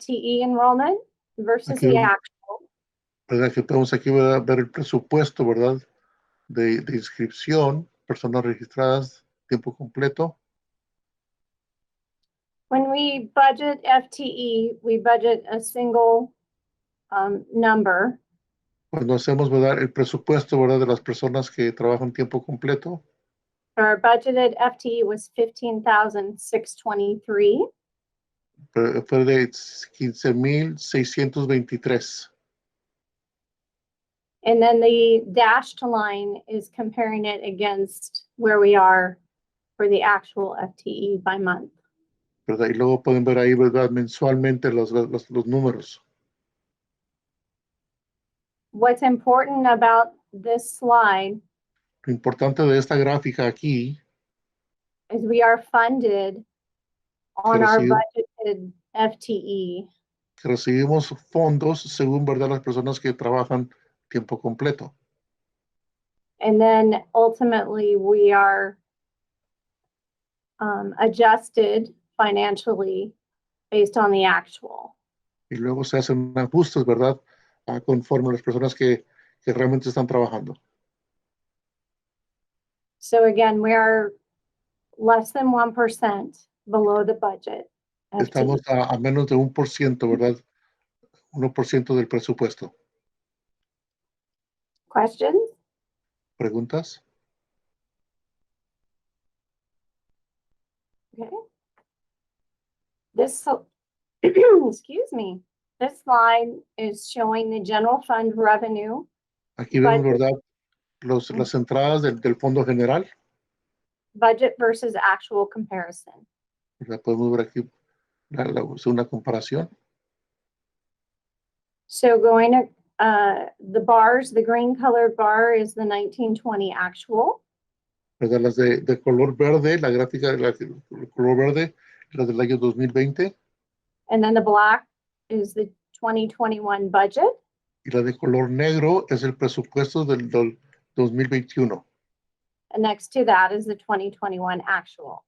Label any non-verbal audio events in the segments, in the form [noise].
FTE E enrollment versus the Okay. actual. ¿verdad? Que podemos aquí ¿verdad? ver el presupuesto, ¿verdad? De, de inscripción, personas registradas, tiempo completo. When we budget FTE, we budget a single um, number. Cuando Pues hacemos, ¿verdad? El presupuesto, ¿verdad? De las personas que trabajan tiempo completo. Our budgeted FTE was fifteen thousand six twenty-three. eh, Fue de 15,623. And then the dashed line is comparing it against where we are for the actual FTE by month. ¿verdad? Y luego pueden ver ahí, ¿verdad? Mensualmente los, los, los números. What's important about this slide Lo importante de esta gráfica aquí, is we are funded on Pero our sí. budgeted E. FTE. que recibimos fondos según, ¿verdad? Las personas que trabajan tiempo completo. And then ultimately, we are um, adjusted financially based on the actual. y luego se hacen ajustes, ¿verdad? Ah, conforme a las personas que, que realmente están trabajando. So again, we are less than 1% below the budget. FTE. Estamos a, a menos de un por ciento, ¿verdad? 1% del presupuesto. Questions? ¿Preguntas? This, so- [clears throat] excuse me, this slide is showing the general fund revenue Aquí vemos, Vale. ¿verdad? Los, las entradas del, del fondo general, budget versus actual comparison. ¿verdad? Podemos ver aquí la, la- una comparación. So going to, uh, the bars, the green colored bar is the 1920 actual. ¿verdad? Las de, de color verde, la gráfica de la- el color verde, las del año 2020, And then the black is the 2021 budget. y la de color negro es el presupuesto del, del 2021, And next to that is the 2021 actual.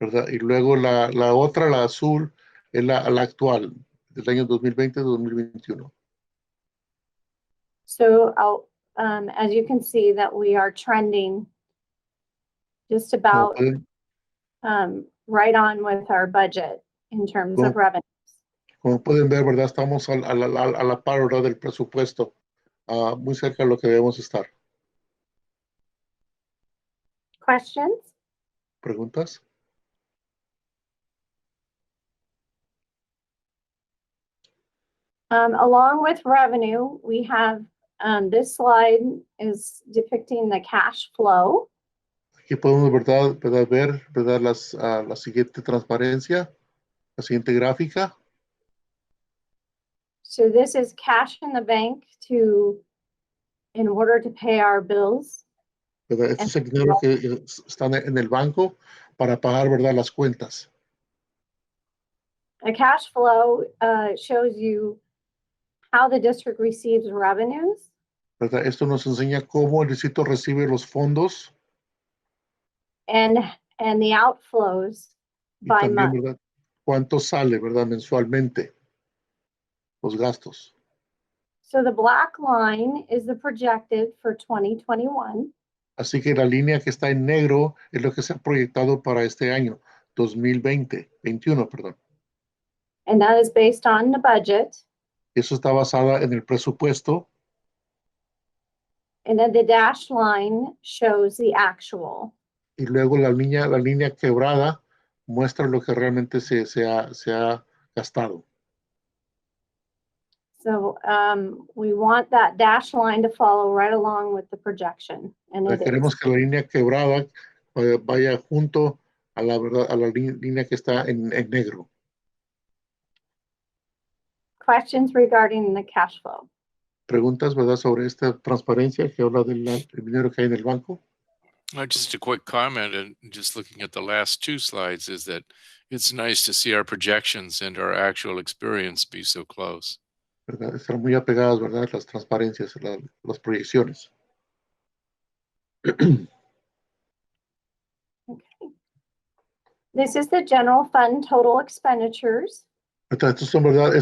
¿verdad? Y luego la, la otra, la azul, es la, la actual, del año 2020-2021. So, I'll- um, as you can see that we are trending just Como about, pueden, um, right on with our budget in terms of Cool. revenue. como pueden ver, ¿verdad? Estamos a, la- a la, a la par, ¿verdad? Del presupuesto, ah, muy cerca de lo que debemos estar. Questions? ¿Preguntas? Um, along with revenue, we have, um, this slide is depicting the cash flow. Aquí podemos, ¿verdad? ¿verdad? Ver, ¿verdad? Las, ah, la siguiente transparencia, la siguiente gráfica. So this is cash in the bank to, in order to pay our bills. ¿verdad? Este es el dinero que eh, s- están en el banco para pagar, ¿verdad? Las cuentas. A cash flow uh, shows you how the district receives revenues. ¿verdad? Esto nos enseña cómo el distrito recibe los fondos and, and the outflows y by también, month. ¿verdad? Cuánto sale, ¿verdad? Mensualmente. Los gastos. So the black line is the projected for 2021. Así que la línea que está en negro es lo que se ha proyectado para este año, 2020, 21, perdón. And that is based on the budget. Eso está basada en el presupuesto And then the dashed line shows the actual. y luego la línea, la línea quebrada muestra lo que realmente se, se ha, se ha gastado. So um, we want that dashed line to follow right along with the projection. And O sea, it is. Queremos que la línea quebrada eh, vaya junto a la verdad, a la li- línea que está en, en negro. Questions regarding the cash flow? Preguntas, ¿verdad? Sobre esta transparencia que habla del del dinero que hay en el banco. Uh, Just a quick comment, and just looking at the last two slides, is that it's nice to see our projections and our actual experience be so close. ¿verdad? Están muy apegadas, ¿verdad? Las transparencias, la- las proyecciones. [clears throat] This is the general fund total expenditures. Entonces, estos son, ¿verdad?